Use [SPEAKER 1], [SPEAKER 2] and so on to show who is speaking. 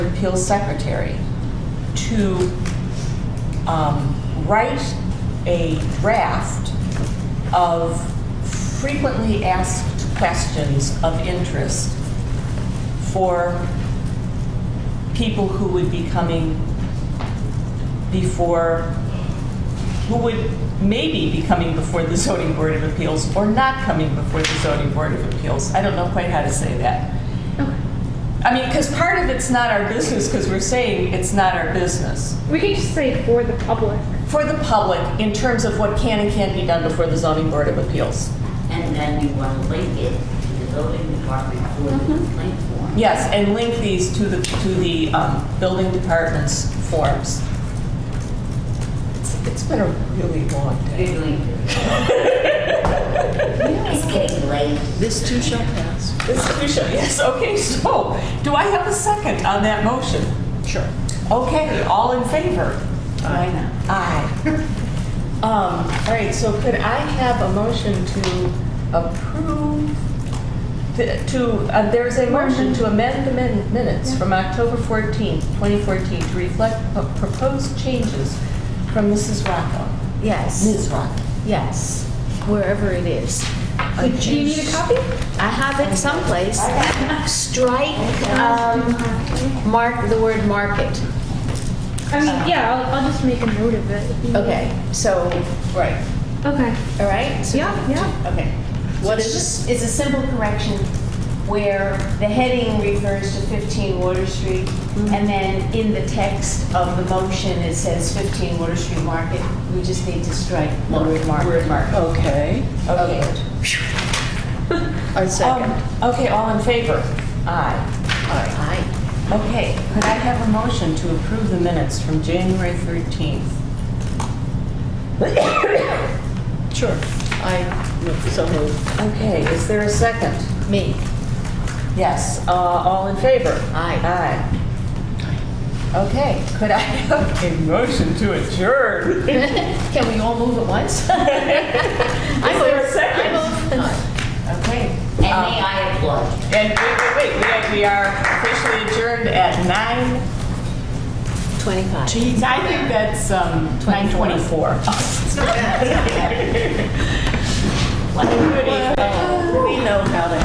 [SPEAKER 1] Appeals Secretary to um, write a draft of frequently asked questions of interest for people who would be coming before, who would maybe be coming before the zoning board of appeals or not coming before the zoning board of appeals. I don't know quite how to say that.
[SPEAKER 2] Okay.
[SPEAKER 1] I mean, because part of it's not our business, because we're saying it's not our business.
[SPEAKER 2] We can just say for the public.
[SPEAKER 1] For the public, in terms of what can and can't be done before the zoning board of appeals.
[SPEAKER 3] And then you want to link it to the building department for the complaint form.
[SPEAKER 1] Yes, and link these to the, to the um, building department's forms. It's- It's been a really long day.
[SPEAKER 3] You're going to. It's getting late.
[SPEAKER 4] This too shall pass.
[SPEAKER 1] This Tricia, yes, okay, so, do I have a second on that motion?
[SPEAKER 4] Sure.
[SPEAKER 1] Okay, all in favor?
[SPEAKER 4] Aye.
[SPEAKER 1] Aye. Um, all right, so could I have a motion to approve, the- to, uh, there's a motion to amend the min- minutes from October 14th, 2014, to reflect p- proposed changes from Mrs. Rocco.
[SPEAKER 5] Yes,
[SPEAKER 1] Ms. Rocco.
[SPEAKER 5] yes, wherever it is. Oh,
[SPEAKER 2] Do you need a copy?
[SPEAKER 5] I have it someplace. Strike, um, mark, the word market.
[SPEAKER 2] I mean, yeah, I'll, I'll just make a note of it. if you need it.
[SPEAKER 5] Okay, so,
[SPEAKER 1] Right.
[SPEAKER 2] Okay.
[SPEAKER 5] all right? so-
[SPEAKER 2] Yeah, yeah.
[SPEAKER 5] Okay.
[SPEAKER 6] What is this? It's a simple correction where the heading refers to 15 Water Street, and then in the text of the motion, it says 15 Water Street Market. We just need to strike the word market.
[SPEAKER 4] Okay.
[SPEAKER 1] Okay.
[SPEAKER 4] I second.
[SPEAKER 1] Um, Okay, all in favor? Aye.
[SPEAKER 5] Aye.
[SPEAKER 1] Okay, could I have a motion to approve the minutes from January 13th?
[SPEAKER 4] Sure. I move, so move.
[SPEAKER 1] Okay, is there a second?
[SPEAKER 5] Me,
[SPEAKER 1] Yes, uh, all in favor?
[SPEAKER 5] aye.
[SPEAKER 1] Aye. Okay, could I have a motion to adjourn?
[SPEAKER 5] Can we all move at once? I
[SPEAKER 1] Is there a
[SPEAKER 5] move.
[SPEAKER 1] second?
[SPEAKER 5] I
[SPEAKER 1] Okay.
[SPEAKER 3] And may
[SPEAKER 1] um,
[SPEAKER 3] I applaud?
[SPEAKER 1] And wait, wait, wait, we- we are officially adjourned at 9.
[SPEAKER 5] move. 25.
[SPEAKER 1] Geez, I think that's um, 924.
[SPEAKER 3] What?
[SPEAKER 1] We know how to